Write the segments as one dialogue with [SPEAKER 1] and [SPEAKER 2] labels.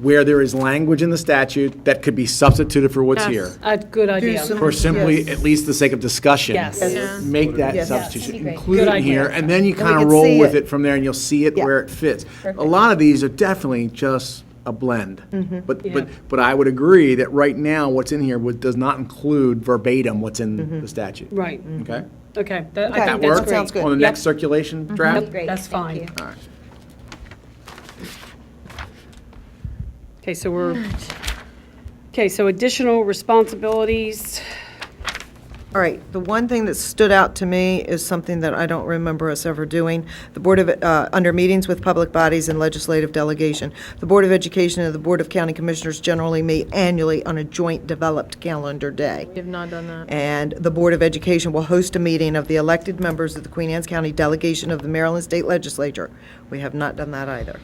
[SPEAKER 1] where there is language in the statute that could be substituted for what's here.
[SPEAKER 2] Yes, A good idea.
[SPEAKER 3] some-
[SPEAKER 1] For simply,
[SPEAKER 3] Yes.
[SPEAKER 1] at least the sake of discussion.
[SPEAKER 2] Yes. Yeah.
[SPEAKER 1] Make that
[SPEAKER 3] Yes.
[SPEAKER 1] substitution,
[SPEAKER 4] That'd be great.
[SPEAKER 1] include it
[SPEAKER 2] Good
[SPEAKER 1] in here,
[SPEAKER 2] idea.
[SPEAKER 1] and then you
[SPEAKER 3] we
[SPEAKER 1] kind of
[SPEAKER 3] could
[SPEAKER 1] roll
[SPEAKER 3] see
[SPEAKER 1] with
[SPEAKER 3] it.
[SPEAKER 1] it from there, and you'll see it
[SPEAKER 3] Yeah.
[SPEAKER 1] where it fits. A
[SPEAKER 4] Perfect.
[SPEAKER 1] lot of these are definitely just a blend. But,
[SPEAKER 2] Yeah.
[SPEAKER 1] but, but I would agree that right now, what's in here would- does not include verbatim what's in the statute.
[SPEAKER 2] Right,
[SPEAKER 1] Okay?
[SPEAKER 2] okay, that, I
[SPEAKER 1] That
[SPEAKER 2] think
[SPEAKER 3] Okay,
[SPEAKER 2] that's
[SPEAKER 1] work?
[SPEAKER 2] great.
[SPEAKER 3] Sounds good.
[SPEAKER 1] On the
[SPEAKER 2] Yep.
[SPEAKER 1] next circulation draft?
[SPEAKER 4] Great,
[SPEAKER 2] That's
[SPEAKER 4] thank
[SPEAKER 2] fine.
[SPEAKER 4] you.
[SPEAKER 1] All right.
[SPEAKER 2] Okay, so we're, okay, so additional responsibilities,
[SPEAKER 3] All right, the one thing that stood out to me is something that I don't remember us ever doing. The Board of, uh, under meetings with public bodies and legislative delegation, the Board of Education and the Board of County Commissioners generally meet annually on a joint developed calendar day.
[SPEAKER 5] We have not done that.
[SPEAKER 3] And the Board of Education will host a meeting of the elected members of the Queen Anne's County Delegation of the Maryland State Legislature. We have not done that either.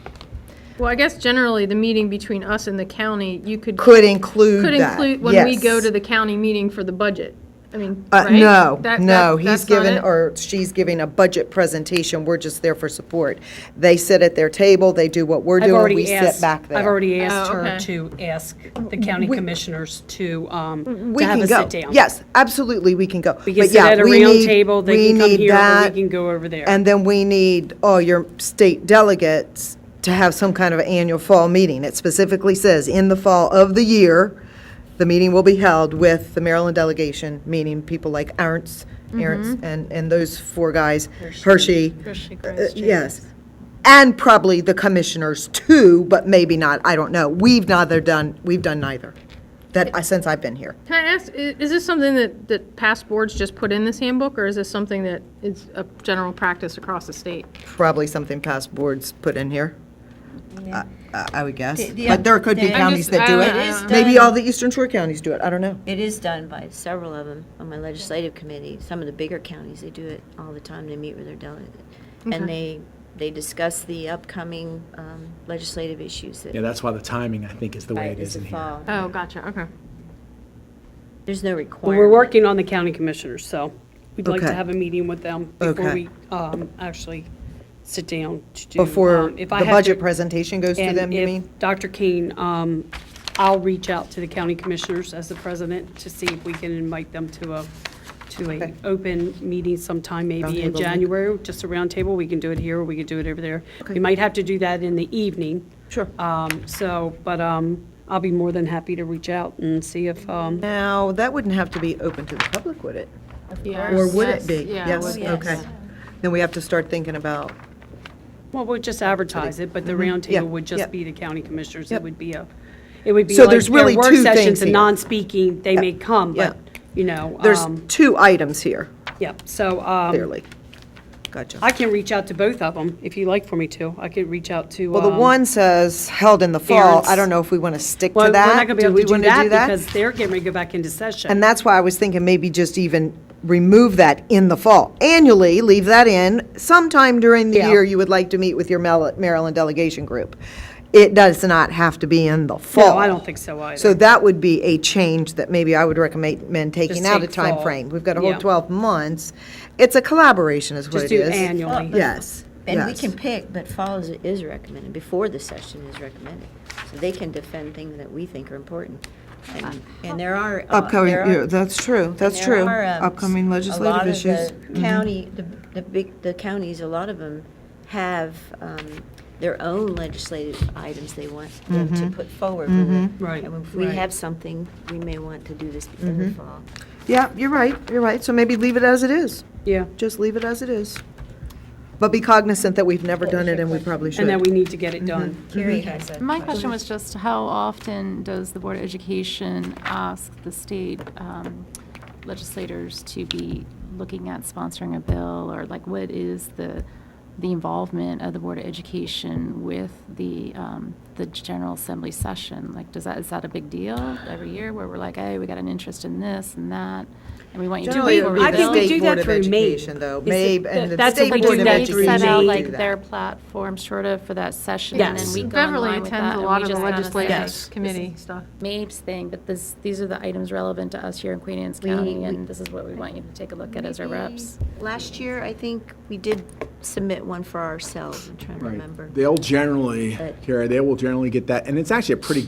[SPEAKER 5] Well, I guess generally, the meeting between us and the county, you could.
[SPEAKER 3] Could include
[SPEAKER 5] Could
[SPEAKER 3] that,
[SPEAKER 5] include when we
[SPEAKER 3] yes.
[SPEAKER 5] go to the county meeting for the budget. I mean,
[SPEAKER 3] Uh,
[SPEAKER 5] right?
[SPEAKER 3] no,
[SPEAKER 5] That-
[SPEAKER 3] no,
[SPEAKER 5] that-
[SPEAKER 3] he's
[SPEAKER 5] that's not
[SPEAKER 3] given,
[SPEAKER 5] it?
[SPEAKER 3] or she's giving a budget presentation, we're just there for support. They sit at their table, they do what we're
[SPEAKER 2] I've
[SPEAKER 3] doing, we
[SPEAKER 2] already
[SPEAKER 3] sit
[SPEAKER 2] asked,
[SPEAKER 3] back there.
[SPEAKER 2] I've already asked
[SPEAKER 5] Oh,
[SPEAKER 2] her
[SPEAKER 5] okay.
[SPEAKER 2] to ask the county commissioners to, um,
[SPEAKER 3] We
[SPEAKER 2] to have
[SPEAKER 3] can
[SPEAKER 2] a
[SPEAKER 3] go.
[SPEAKER 2] sit down.
[SPEAKER 3] Yes, absolutely, we can go.
[SPEAKER 2] We can
[SPEAKER 3] But
[SPEAKER 2] sit
[SPEAKER 3] yeah,
[SPEAKER 2] at a
[SPEAKER 3] we
[SPEAKER 2] round
[SPEAKER 3] need-
[SPEAKER 2] table, they
[SPEAKER 3] we
[SPEAKER 2] can come
[SPEAKER 3] need
[SPEAKER 2] here, or we
[SPEAKER 3] that,
[SPEAKER 2] can go over there.
[SPEAKER 3] And then we need all your state delegates to have some kind of annual fall meeting. It specifically says, in the fall of the year, the meeting will be held with the Maryland delegation, meaning people like Arntz,
[SPEAKER 2] Mm-hmm.
[SPEAKER 3] Arntz, and, and those four guys, Hershey.
[SPEAKER 5] Hershey,
[SPEAKER 3] uh,
[SPEAKER 5] Grimes,
[SPEAKER 3] Yes. And probably the commissioners too, but maybe not, I don't know. We've neither done, we've done neither, that, uh, since I've been here.
[SPEAKER 5] Can I ask, i- is this something that, that past boards just put in this handbook, or is this something that is a general practice across the state?
[SPEAKER 3] probably something past boards put in here. I- I I would guess. But there could be counties that do
[SPEAKER 5] I don't- I
[SPEAKER 3] it.
[SPEAKER 5] don't
[SPEAKER 3] Maybe all the Eastern Shore counties do it. I don't
[SPEAKER 2] Um,
[SPEAKER 3] know.
[SPEAKER 4] It is done by several of them on my legislative committee. Some of the bigger counties, they do it all the time. They meet with their delegate. And they, they discuss the upcoming um, legislative issues that
[SPEAKER 1] Yeah, that's why the timing, I think, is the way it
[SPEAKER 4] is
[SPEAKER 1] is in
[SPEAKER 4] the
[SPEAKER 1] here.
[SPEAKER 4] fall.
[SPEAKER 5] Oh, gotcha, okay.
[SPEAKER 4] There's no
[SPEAKER 2] Well, Uh, We're
[SPEAKER 4] requirement.
[SPEAKER 2] working on the county commissioners, so we'd like to
[SPEAKER 3] Okay.
[SPEAKER 2] have a meeting with them before
[SPEAKER 3] Okay.
[SPEAKER 2] we um, actually sit down to do.
[SPEAKER 3] Before
[SPEAKER 2] um,
[SPEAKER 3] the
[SPEAKER 2] if I have
[SPEAKER 3] budget
[SPEAKER 2] to-
[SPEAKER 3] presentation goes to
[SPEAKER 2] and
[SPEAKER 3] them, you
[SPEAKER 2] if
[SPEAKER 3] mean?
[SPEAKER 2] Dr. Kane, um, I'll reach out to the county commissioners as the president to see if we can invite them to a, to a open meeting sometime maybe in
[SPEAKER 3] Roundtable.
[SPEAKER 2] January, just a roundtable. We can do it here, or we can do it over there. We might have to do that in the evening.
[SPEAKER 3] Sure.
[SPEAKER 2] Um, So, but um, I'll be more than happy to reach out and see if, um,
[SPEAKER 3] Now, that wouldn't have to be open to the public, would it?
[SPEAKER 5] Yeah.
[SPEAKER 3] Or would it be?
[SPEAKER 5] Yes, yeah,
[SPEAKER 3] Yes,
[SPEAKER 5] would-
[SPEAKER 3] okay. Then we have to start thinking about,
[SPEAKER 2] well, we'll just advertise it, but the
[SPEAKER 3] Mm-hmm. Yeah,
[SPEAKER 2] roundtable would
[SPEAKER 3] yeah.
[SPEAKER 2] just be the county commissioners. It
[SPEAKER 3] Yep.
[SPEAKER 2] would be a, it would be
[SPEAKER 3] So
[SPEAKER 2] like
[SPEAKER 3] there's
[SPEAKER 2] their
[SPEAKER 3] really
[SPEAKER 2] work
[SPEAKER 3] two
[SPEAKER 2] sessions
[SPEAKER 3] things
[SPEAKER 2] and
[SPEAKER 3] here.
[SPEAKER 2] non-speaking, they may come, but,
[SPEAKER 3] yeah.
[SPEAKER 2] you know.
[SPEAKER 3] there's
[SPEAKER 2] um,
[SPEAKER 3] two items here,
[SPEAKER 2] Yep, so um,
[SPEAKER 3] clearly. Gotcha.
[SPEAKER 2] I can reach out to both of them if you like for me to. I could reach out to.
[SPEAKER 3] Well, the
[SPEAKER 2] um,
[SPEAKER 3] one says held in the fall.
[SPEAKER 2] Aaron's-
[SPEAKER 3] I don't know if we want to stick
[SPEAKER 2] Well,
[SPEAKER 3] to
[SPEAKER 2] we're
[SPEAKER 3] that.
[SPEAKER 2] not going to be able
[SPEAKER 3] we
[SPEAKER 2] to do
[SPEAKER 3] wanna
[SPEAKER 2] that because they're getting ready to go back into
[SPEAKER 3] And
[SPEAKER 2] session.
[SPEAKER 3] that's why I was thinking maybe just even remove that in the fall. Annually, leave that in. Sometime during the
[SPEAKER 2] Yeah.
[SPEAKER 3] year, you would like to meet with your Mel- Maryland delegation group. It does not have to be in the fall.
[SPEAKER 2] No, I don't think so
[SPEAKER 3] So
[SPEAKER 2] either.
[SPEAKER 3] that would be a change that maybe I would recommend men taking
[SPEAKER 2] Just
[SPEAKER 3] out a
[SPEAKER 2] take
[SPEAKER 3] time
[SPEAKER 2] fall.
[SPEAKER 3] frame. We've got a whole
[SPEAKER 2] Yeah.
[SPEAKER 3] 12 months. It's a collaboration is what
[SPEAKER 2] Just
[SPEAKER 3] it
[SPEAKER 2] do
[SPEAKER 3] is.
[SPEAKER 2] annually.
[SPEAKER 3] Yes,
[SPEAKER 4] And we can
[SPEAKER 3] yes.
[SPEAKER 4] pick, but fall is, is recommended, before the session is recommended. So they can defend things that we think are important. And- And there are. uh,
[SPEAKER 3] Upcoming,
[SPEAKER 4] there are-
[SPEAKER 3] yeah, that's true, that's
[SPEAKER 4] There
[SPEAKER 3] true.
[SPEAKER 4] are, um,
[SPEAKER 3] Upcoming
[SPEAKER 4] A lot
[SPEAKER 3] legislative
[SPEAKER 4] of
[SPEAKER 3] issues. Mm-hmm.
[SPEAKER 4] the county, the, the big, the counties, a lot of them have um, their own legislative items they want them
[SPEAKER 3] Mm-hmm.
[SPEAKER 4] to put forward. with it.
[SPEAKER 2] Right,
[SPEAKER 4] And if we
[SPEAKER 2] right.
[SPEAKER 4] have something, we may want to do this in
[SPEAKER 3] Mm-hmm.
[SPEAKER 4] the fall.
[SPEAKER 3] Yeah, you're right, you're right. So maybe leave it as it is.
[SPEAKER 2] Yeah,
[SPEAKER 3] just leave it as it is. But be cognizant that we've never done it and we probably should. Mm-hmm.
[SPEAKER 2] and then we need to get it done.
[SPEAKER 4] Carrie has a.
[SPEAKER 6] Mm-hmm. My question was just how often does the Board of Education ask the state um, legislators to be looking at sponsoring a bill? Or like, what is the, the involvement of the Board of Education with the, um, the General Assembly session? Like, does that, is that a big deal every year where we're like, hey, we got an interest in this and that? And we want you to.
[SPEAKER 3] Generally, it
[SPEAKER 6] vote
[SPEAKER 3] would
[SPEAKER 6] for
[SPEAKER 3] be
[SPEAKER 2] I
[SPEAKER 6] the
[SPEAKER 3] the
[SPEAKER 2] think
[SPEAKER 6] bill?"
[SPEAKER 2] we
[SPEAKER 3] State
[SPEAKER 2] do
[SPEAKER 3] Board
[SPEAKER 2] that
[SPEAKER 3] of
[SPEAKER 2] through
[SPEAKER 3] Education,
[SPEAKER 2] MAPE.
[SPEAKER 3] though.
[SPEAKER 2] Is
[SPEAKER 3] MAPE
[SPEAKER 2] it-
[SPEAKER 3] and the
[SPEAKER 2] that's what
[SPEAKER 3] State
[SPEAKER 2] we
[SPEAKER 6] Like,
[SPEAKER 2] do
[SPEAKER 3] Board
[SPEAKER 6] do
[SPEAKER 3] of
[SPEAKER 6] they
[SPEAKER 2] that through
[SPEAKER 6] set
[SPEAKER 3] Education
[SPEAKER 6] out
[SPEAKER 2] May.
[SPEAKER 3] do
[SPEAKER 6] like their
[SPEAKER 3] that.
[SPEAKER 6] platform sort of for that session? And
[SPEAKER 2] Yes.
[SPEAKER 6] then we go in
[SPEAKER 5] Beverly
[SPEAKER 6] line with
[SPEAKER 5] attends
[SPEAKER 6] that.
[SPEAKER 5] a
[SPEAKER 6] and
[SPEAKER 5] lot of
[SPEAKER 6] we
[SPEAKER 5] the
[SPEAKER 6] just kinda
[SPEAKER 5] legislative
[SPEAKER 6] say,
[SPEAKER 5] committee stuff.
[SPEAKER 6] MAPE's thing, but this, these are the items relevant to us here in Queen Anne's County, and this is what we want you to take a look at as our reps.
[SPEAKER 4] Last year, I think we did submit one for ourselves, I'm trying to
[SPEAKER 1] Right.
[SPEAKER 4] remember.
[SPEAKER 1] They'll generally,
[SPEAKER 4] But-
[SPEAKER 1] Kara, they will generally get that, and it's actually a pretty good